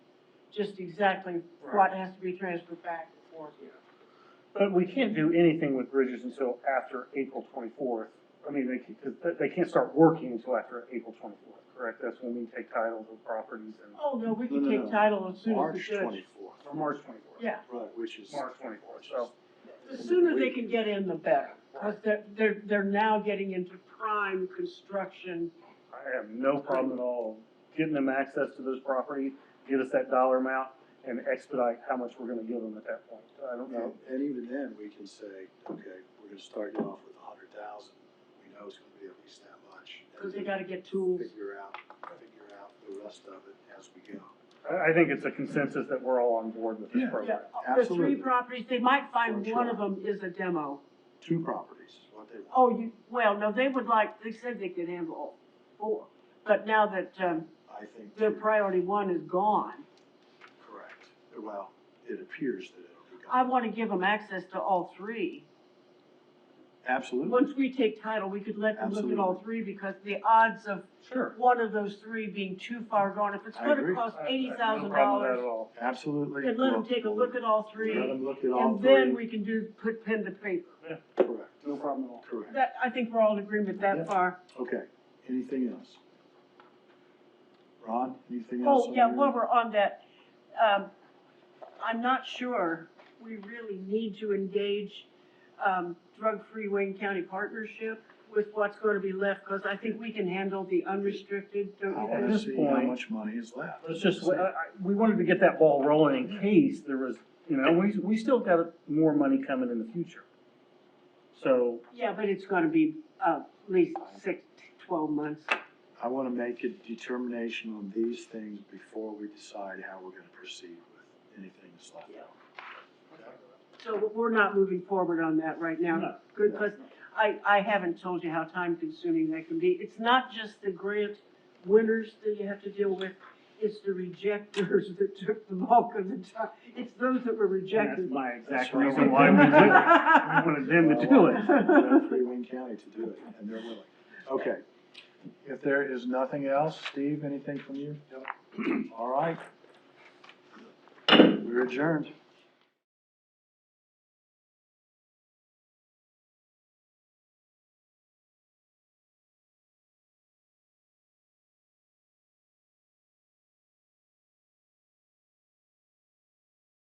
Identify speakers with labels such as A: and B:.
A: just exactly what has to be transferred back and forth.
B: But we can't do anything with bridges until after April twenty-fourth. I mean, they, ca- 'cause they- they can't start working until after April twenty-fourth, correct? That's when we take title of properties and,
A: Oh, no, we can
C: No, no,
A: take
C: no.
A: title as soon as the
C: March
A: judge.
C: twenty-fourth,
B: or March twenty-fourth.
A: Yeah,
C: right, which is.
B: March twenty-fourth, so,
A: the sooner they can get in, the better, because they're, they're, they're now getting into prime construction.
B: I have no problem at all getting them access to those properties, get us that dollar amount, and expedite how much we're gonna give them at that point. I don't
C: And
B: know.
C: and even then, we can say, okay, we're gonna start you off with a hundred thousand, we know it's gonna be at least that much. and
A: 'Cause they gotta get tools.
C: Figure out, figure out the rest of it as we go.
B: I, I think it's a consensus that we're all on board with this
C: Yeah.
A: Yeah,
B: program.
A: the three
C: Absolutely.
A: properties, they might find
C: For
A: one
C: sure.
A: of them is a demo.
C: Two properties is what they want.
A: Oh, you, well, no, they would like, they said they could handle all four, but now that, um,
C: I think.
A: their
C: two.
A: priority one is gone,
C: Correct. Well, it appears that it'll be
A: I
C: gone.
A: wanna give them access to all three.
C: Absolutely.
A: Once we take title, we could let them look at all three, because the odds of
B: Sure.
A: one of those three being too far gone, if it's
C: I
A: gonna
C: agree.
A: cost
B: I- I have
A: eighty thousand
B: No problem with that at
A: dollars,
B: all.
C: Absolutely.
A: then let them take a look at all three,
C: Let them look at all
A: and
C: three.
A: then we can do, put pen to paper.
C: Correct,
B: No problem at all.
C: correct.
A: That, I think we're all in agreement
B: Yeah.
A: that far.
C: Okay, anything else? Ron, anything else?
A: Oh,
C: on
A: yeah,
C: your-
A: while we're on that, um, I'm not sure we really need to engage, um, Drug-Free Wayne County Partnership with what's gonna be left, because I think we can handle the unrestricted,
C: I
A: don't you
C: wanna
A: think?
B: this
C: see how
B: point-
C: much money is left.
B: It's just, I, I, we wanted to get that ball rolling in case there was, you know, we, we still got more money coming in the future. So,
A: Yeah, but it's gonna be, uh, at least six, to twelve months.
C: I wanna make a determination on these things before we decide how we're gonna proceed with anything that's left.
A: So we're not moving forward on that right now.
B: No.
A: Good, because I, I haven't told you how time-consuming that can be. It's not just the grant winners that you have to deal with, it's the rejectors that took the bulk of the time. It's those that were
B: and that's
A: rejected.
B: my exact
C: That's right.
B: reason why we did it. We wanted them to do it.
C: They're Free Wayne County to do it, and they're willing. Okay. If there is nothing else, Steve, anything from you? All right. We're adjourned.